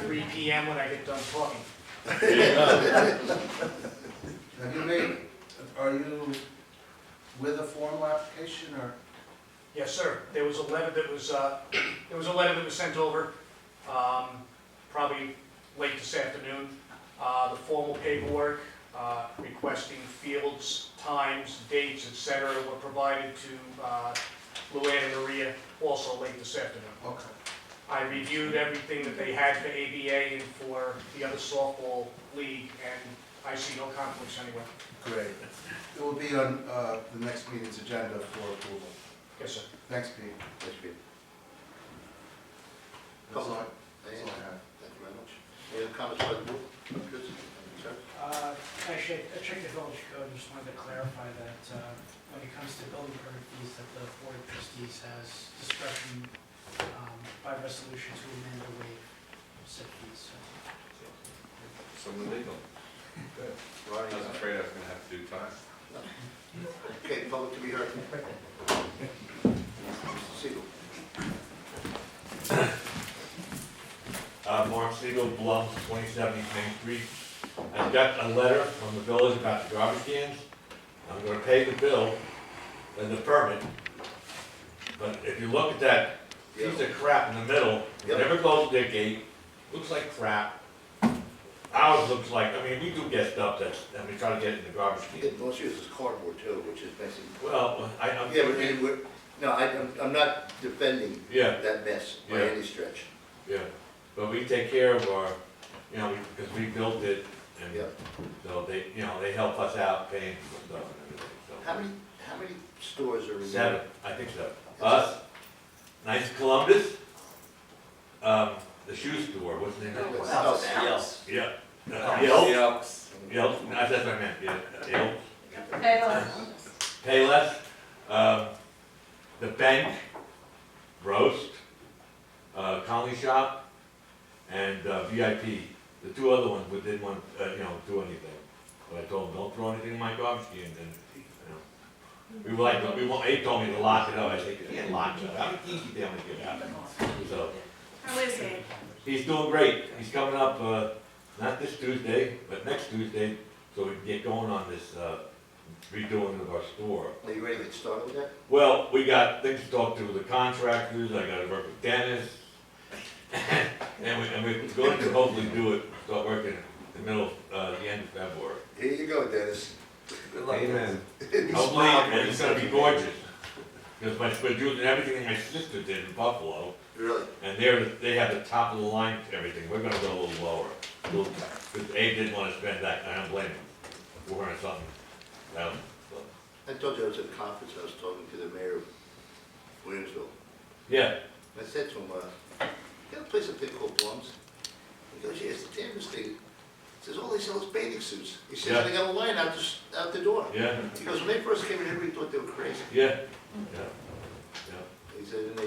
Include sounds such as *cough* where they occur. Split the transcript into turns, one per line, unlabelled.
three P M when I get done talking.
Have you made, are you with a formal application or?
Yes, sir. There was a letter that was, uh, there was a letter that was sent over, um, probably late this afternoon. Uh, the formal paperwork, uh, requesting fields, times, dates, et cetera, were provided to, uh, Luann and Maria also late this afternoon.
Okay.
I reviewed everything that they had for ABA and for the other softball league, and I see no conflicts anywhere.
Great. It will be on uh, the next meeting's agenda for approval.
Yes, sir.
Next meeting.
Thanks, Peter.
That's all I-
Thank
that's
you
all I have.
very much. Any other comments by the board? Chris, any concerns?
Uh, Actually, I checked the village code, just wanted to clarify that uh, when it comes to building permit fees, that the board of trustees has discretion um, by resolution to amend or waive said fees. so.
So illegal. I
Ronnie,
was afraid I was gonna have to do time.
Okay, public to be heard. Mr. Siegel.
Uh, Mark Siegel, Bluff, twenty-seven East Main Street. I've got a letter from the village about the garbage cans. I'm gonna pay the bill and the permit. But if you look at that piece of crap in the middle,
Yep.
never closes their gate, looks like crap. Ours looks like, I mean, we do get stuff that's, and we try to get it in the garbage
You
can.
get, most use is cardboard too, which is basically.
Well, I, I'm.
Yeah, but I mean, we're, no, I, I'm, I'm not defending
Yeah,
that mess by
Yeah.
any stretch.
yeah. But we take care of our, you know, because we built it and.
Yeah.
So they, you know, they help us out paying for stuff and everything,
How many, how many stores are
so.
in?
Seven, I think so. Us, Nice Columbus, um, the shoe store, what's the name of it?
Wow.
Yeah, uh, Yelp, Yelp, no, that's what I meant, yeah, Yelp, Payless, um, the Bank, Roast, uh, Conley Shop, and uh, VIP. The two other ones, we didn't want, uh, you know, do anything. But I told them, don't throw anything in my garbage can, and, you know. We were like, we want, they told me to lock it up, I said, you can't lock it up, I'm easy damn to get out. So,
How is he?
he's doing great, he's coming up, uh, not this Tuesday, but next Tuesday, so we can get going on this, uh, redoing of our store.
Are you ready to get started with that?
Well, we got things to talk to with the contractors, I gotta work with Dennis. *coughs* And we, and we're going to hopefully do it, start working in the middle, uh, the end of February.
Here you go,
*laughs*
Dennis.
Amen.
Hopefully, and it's gonna be gorgeous. Because my, we're doing everything my sister did in Buffalo,
Really?
and they're, they have the top of the line to everything, we're gonna go a little lower. a little- Cause Abe didn't wanna spend that, and I don't blame him, four hundred something, thousand, so.
I told you I was at a conference, I was talking to the mayor of Williamsville.
Yeah,
I said to him, uh, you got a place up there called Blum's? He goes, yeah, it's the damnedest thing. He says, all they sell is bathing suits. He
Yeah.
says, they got a line out the, s- out the door.
yeah,
He goes, when they first came in, everybody thought they were crazy.
yeah, yeah, yeah.
He said, and they